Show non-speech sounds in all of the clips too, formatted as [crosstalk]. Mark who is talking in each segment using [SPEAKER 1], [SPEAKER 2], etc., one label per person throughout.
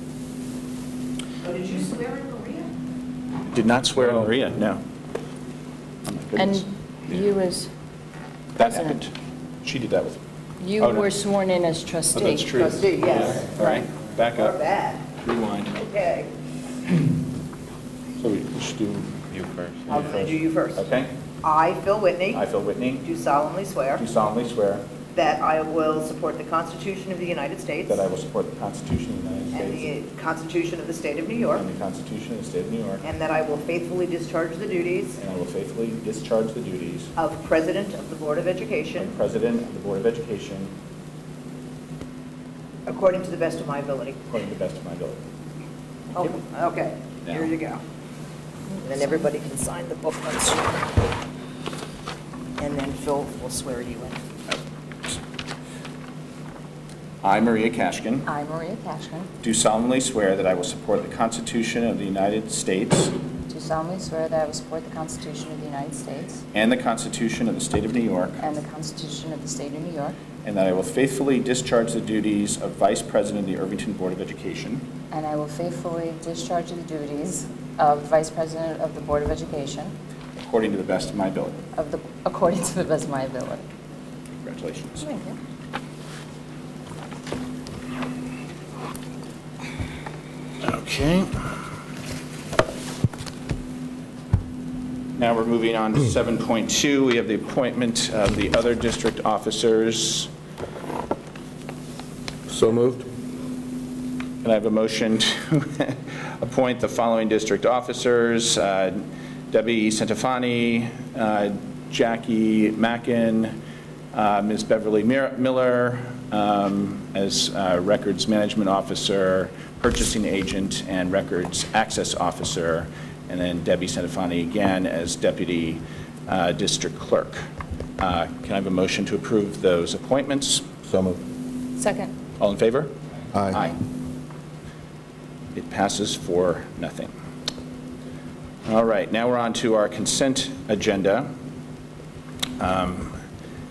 [SPEAKER 1] So Oh, did you swear in Maria?
[SPEAKER 2] Did not swear in
[SPEAKER 3] Oh.
[SPEAKER 2] Maria, no. Oh, my goodness.
[SPEAKER 4] And you as
[SPEAKER 2] That
[SPEAKER 4] president,
[SPEAKER 2] happened. She did that with,
[SPEAKER 4] you
[SPEAKER 2] Oh, no.
[SPEAKER 4] were sworn in as trustee.
[SPEAKER 2] oh, that's true.
[SPEAKER 1] Trustee, yes.
[SPEAKER 2] All right, back
[SPEAKER 1] Or
[SPEAKER 2] up,
[SPEAKER 1] bad?
[SPEAKER 2] rewind.
[SPEAKER 1] Okay.
[SPEAKER 2] So we we should do,
[SPEAKER 3] You first.
[SPEAKER 1] I'll do you first.
[SPEAKER 2] okay?
[SPEAKER 1] I, Phil Whitney,
[SPEAKER 2] I, Phil Whitney,
[SPEAKER 1] do solemnly swear
[SPEAKER 2] do solemnly swear
[SPEAKER 1] that I will support the Constitution of the United States
[SPEAKER 2] that I will support the Constitution of the United
[SPEAKER 1] and
[SPEAKER 2] States
[SPEAKER 1] the Constitution of the State of New York,
[SPEAKER 2] and the Constitution of the State of New York,
[SPEAKER 1] and that I will faithfully discharge the duties
[SPEAKER 2] and I will faithfully discharge the duties
[SPEAKER 1] of President of the Board of
[SPEAKER 2] of
[SPEAKER 1] Education
[SPEAKER 2] President of the Board of Education
[SPEAKER 1] according to the best of my ability.
[SPEAKER 2] according to the best of my ability.
[SPEAKER 1] Oh, Okay, here you go. And then everybody can sign the book once. you- And then Phil will swear you in.
[SPEAKER 2] I, Maria Kashkin,
[SPEAKER 4] I, Maria Cashman,
[SPEAKER 2] do solemnly swear that I will support the Constitution of the United States
[SPEAKER 4] do solemnly swear that I will support the Constitution of the United States
[SPEAKER 2] and the Constitution of the State of New York,
[SPEAKER 4] and the Constitution of the State of New York,
[SPEAKER 2] and that I will faithfully discharge the duties of Vice President of the Irvington Board of Education
[SPEAKER 4] and I will faithfully discharge the duties of Vice President of the Board of Education
[SPEAKER 2] according to the best of my ability.
[SPEAKER 4] of the, according to the best of my ability.
[SPEAKER 2] Congratulations.
[SPEAKER 4] Thank you.
[SPEAKER 2] Okay. Now we're moving on to 7.2. We have the appointment of the other district officers.
[SPEAKER 3] So moved?
[SPEAKER 2] Can I have a motion to [laughs] appoint the following district officers? uh, Debbie Centofanti, uh, Jackie Mackin, uh, Ms. Beverly Mir- Miller um, as uh, Records Management Officer, Purchasing Agent, and Records Access Officer, and then Debbie Centofanti again as Deputy uh, District Clerk. Uh, Can I have a motion to approve those appointments?
[SPEAKER 3] So moved.
[SPEAKER 4] Second.
[SPEAKER 2] All in favor?
[SPEAKER 3] Aye.
[SPEAKER 2] It passes for nothing. All right, now we're on to our consent agenda. Um,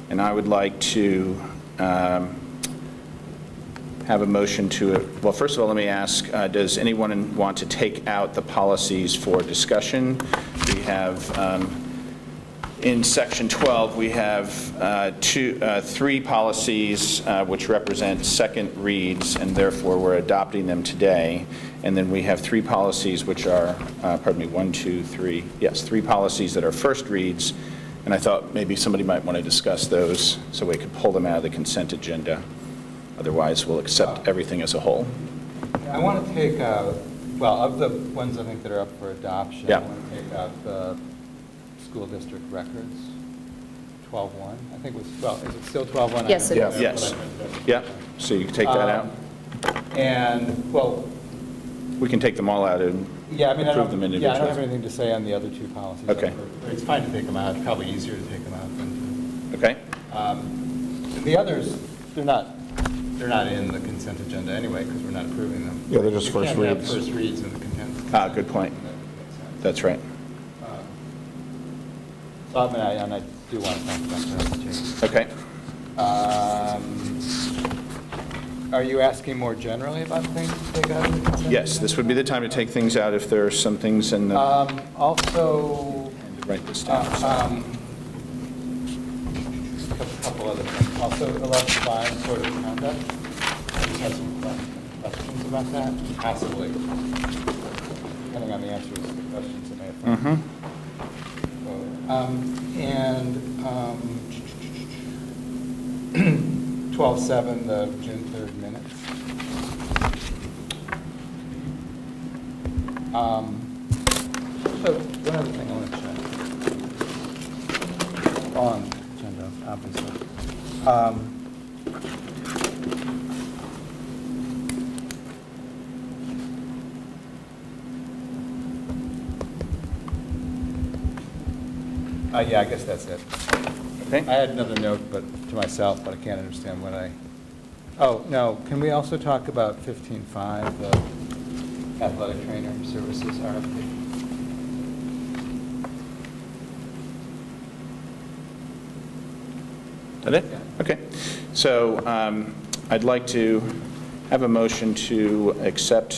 [SPEAKER 2] And I would like to um, have a motion to, well, first of all, let me ask, uh, does anyone want to take out the policies for discussion? We have um, in section 12, we have uh, two, uh, three policies uh, which represent second reads, and therefore we're adopting them today. And then we have three policies which are, uh, pardon me, one, two, three, yes, three policies that are first reads. And I thought maybe somebody might want to discuss those, so we could pull them out of the consent agenda. Otherwise, we'll accept everything as a whole.
[SPEAKER 5] I want to take, out- well, of the ones I think that are up for adoption.
[SPEAKER 2] Yeah.
[SPEAKER 5] I want to take out the school district records, 12-1, I think it was 12, is it still 12-1?
[SPEAKER 4] Yes, it
[SPEAKER 5] I don't
[SPEAKER 4] is.
[SPEAKER 5] know.
[SPEAKER 2] Yes. Yeah, so you can take
[SPEAKER 5] Uh,
[SPEAKER 2] that out.
[SPEAKER 5] And, well,
[SPEAKER 2] We can take them all out and
[SPEAKER 5] yeah, I mean, I
[SPEAKER 2] approve them
[SPEAKER 5] don't, yeah, I don't have
[SPEAKER 2] individually.
[SPEAKER 5] anything to say on the other two policies.
[SPEAKER 2] Okay.
[SPEAKER 5] It's fine to take them out, It's probably easier to take them out than
[SPEAKER 2] Okay?
[SPEAKER 5] to. um, The others, they're not, they're not in the consent agenda anyway, because we're not approving them.
[SPEAKER 3] Yeah, they're just
[SPEAKER 5] You
[SPEAKER 3] first
[SPEAKER 5] can't have
[SPEAKER 3] reads.
[SPEAKER 5] first reads in the consent.
[SPEAKER 2] Ah, good point.
[SPEAKER 5] That makes sense.
[SPEAKER 2] That's right.
[SPEAKER 5] So I mean, I, and I do want to talk about that changes.
[SPEAKER 2] Okay.
[SPEAKER 5] Um, Are you asking more generally about things to take out of the consent?
[SPEAKER 2] Yes, this would be the time to take things out if there are some things in the,
[SPEAKER 5] Um, also,
[SPEAKER 2] write this down.
[SPEAKER 5] uh, um, a couple other things, also eleven five code of conduct. I just have some que- questions about that, possibly, depending on the answers to the questions that may have.
[SPEAKER 2] Mhm.
[SPEAKER 5] Um, And um, [clears throat] 12/7, the June 3rd minutes. Um, So one other thing I want to check. On agenda, obviously. Um, uh, Yeah, I guess that's it. I
[SPEAKER 2] Okay?
[SPEAKER 5] had another note, but to myself, but I can't understand what I, oh, no, can we also talk about 15.5, the athletic trainer services RFP?
[SPEAKER 2] That it? Okay. So um, I'd like to have a motion to accept